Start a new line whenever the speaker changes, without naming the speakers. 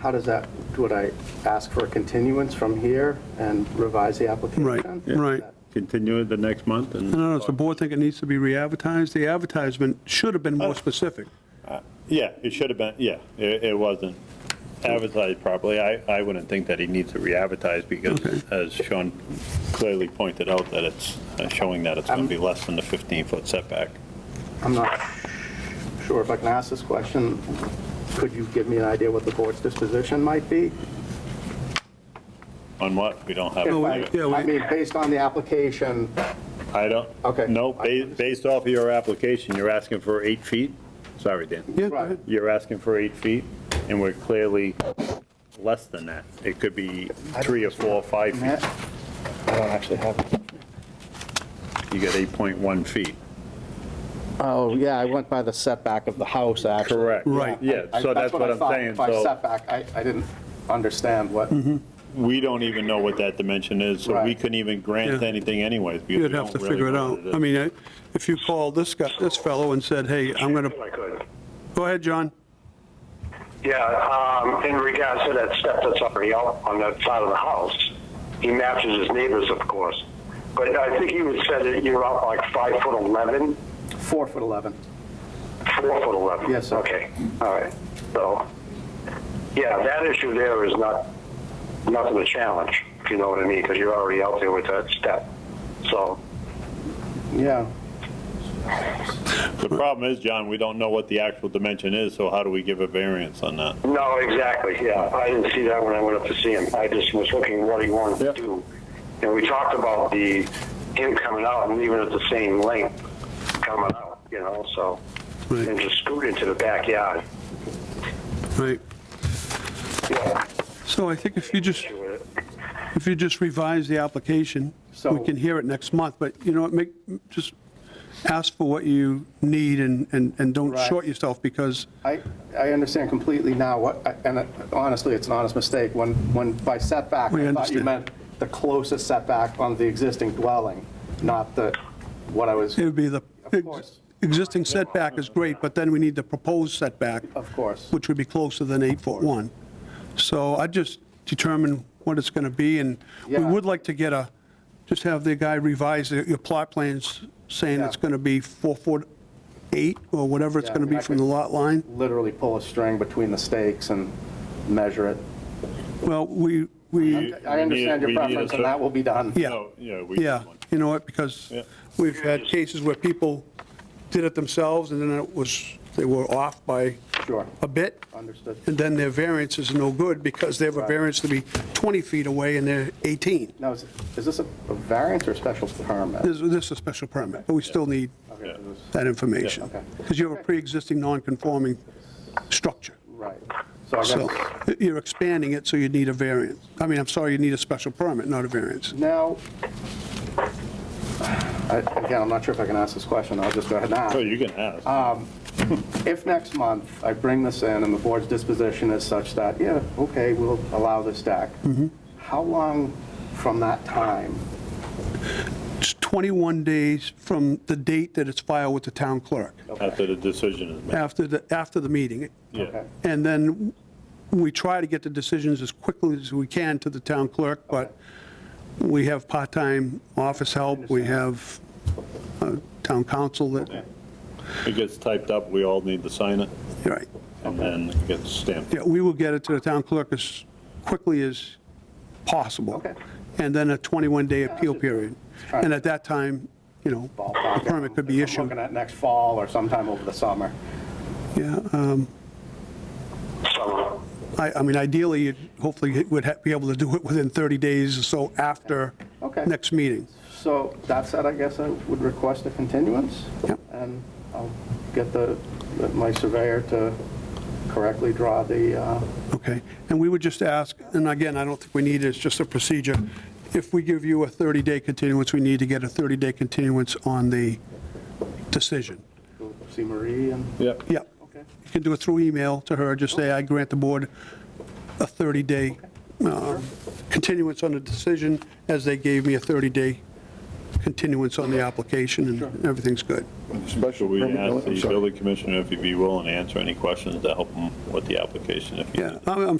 how does that, would I ask for a continuance from here and revise the application?
Right, right.
Continue it the next month and.
No, no, does the board think it needs to be re-advertised? The advertisement should have been more specific.
Yeah, it should have been, yeah, it, it wasn't advertised properly. I, I wouldn't think that he needs to re-advertise because as Sean clearly pointed out, that it's uh, showing that it's going to be less than the 15-foot setback.
I'm not sure if I can ask this question. Could you give me an idea what the board's disposition might be?
On what? We don't have.
If
we-
I
yeah, we-
I mean, based on the application,
I don't.
Okay.
No, ba- based off of your application, you're asking for eight feet? Sorry, Dan.
Yeah, go
Right.
ahead.
You're asking for eight feet, and we're clearly less than that. It could be three or four or five
Matt,
feet.
I don't actually have it.
You get 8.1 feet.
Oh, yeah, I went by the setback of the house, actually.
Correct.
Right.
Yeah,
I-
so that's what I'm
thought.
saying.
By
So
setback, I, I didn't understand what,
Mm-hmm.
we don't even know what that dimension is, so we
Right.
couldn't even grant
Yeah.
anything anyways. because
You'd
we
have to
don't really
figure it
know what
out. I mean, I- if you called this guy, this fellow and said, hey, I'm going
If
to,
I could.
go ahead, John.
Yeah, um, in regards to that step that's already out on that side of the house, he matches his neighbors, of course. But I think you had said that you're out like five foot eleven,
four foot 11.
four foot eleven.
Yes, sir.
Okay, all right. So, yeah, that issue there is not, nothing a challenge, if you know what I mean, because you're already out there with that step. So,
Yeah,
The problem is, John, we don't know what the actual dimension is, so how do we give a variance on that?
No, exactly, yeah. I didn't see that when I went up to see him. I just was looking what he wanted
Yeah.
to do. And we talked about the, him coming out and leaving it the same length coming out, you know, so.
Right.
And just scoot into the backyard.
Right.
Yeah.
So I think if you just,
issue with it.
if you just revise the application,
So-
we can hear it next month, but you know what, make, just ask for what you need and, and and don't
Right.
short yourself because,
I, I understand completely now what, and honestly, it's an honest mistake. When, when by setback,
We
I thought you
understand.
meant the closest setback on the existing dwelling, not the, what I was,
It would be the,
Of course.
existing setback is great, but then we need the proposed setback,
of course.
which would be closer than eight foot one. So I just determine what it's going to be, and we
Yeah.
would like to get a, just have the guy revise the- your plot plans, saying it's
Yeah.
going to be four foot eight, or whatever it's
Yeah,
going to
I mean,
be
I
from the
could-
lot line.
Literally pull a string between the stakes and measure it.
Well, we, we,
I understand your
we need a
preference,
cer-
and that will be done.
yeah.
Oh, Yeah, we need
Yeah,
one.
you know what, because
Yeah.
we've had cases where people did it themselves, and then it was, they were off by
Sure.
a bit.
Understood.
And then their variance is no good, because they have a
Right.
variance to be 20 feet away and they're 18.
Now, is is this a a variance or special permit?
This this is a special permit, but we still need
Okay, so this-
that information.
Yeah, okay.
Because you have a pre-existing non-conforming structure.
Right. So I
So
guess
you're expanding it, so you need a variance. I mean, I'm sorry, you need a special permit, not a variance.
now, I- again, I'm not sure if I can ask this question. I'll just go ahead and ask.
So you can ask.
Ah, If next month I bring this in and the board's disposition is such that, yeah, okay, we'll allow this deck,
Mm-hmm.
how long from that time?
It's 21 days from the date that it's filed with the town clerk,
After the decision is made,
after the, after the meeting.
yeah.
Okay.
And then we try to get the decisions as quickly as we can to the town clerk, but we have part-time office help, we have uh, town council that,
It gets typed up, we all need to sign it,
you're right.
and then it gets stamped.
Yeah, we will get it to the town clerk as quickly as possible.
Okay.
And then a 21-day appeal period. And at that time, you know, a
Ballpark.
permit could be
If I'm
issued.
Looking at next fall or sometime over the summer.
Yeah, um,
So,
I, I mean, ideally, you'd- hopefully, you would ha- be able to do it within 30 days or so after
Okay.
next meeting.
So that said, I guess I would request a continuance.
Yep.
And I'll get the, my surveyor to correctly draw the, uh,
Okay, and we would just ask, and again, I don't think we need it, it's just a procedure, if we give you a 30-day continuance, we need to get a 30-day continuance on the decision.
see Marie and,
Yep.
Yep,
okay.
you can do it through email to her, just say, I grant the board a 30-day um, continuance on the decision, as they gave me a 30-day continuance on the application, and everything's good.
Should
Special
we
permit, no,
ask
I'm
the
sorry.
building commissioner if he'd be willing to answer any questions to help him with the application if he
Yeah, I'm I'm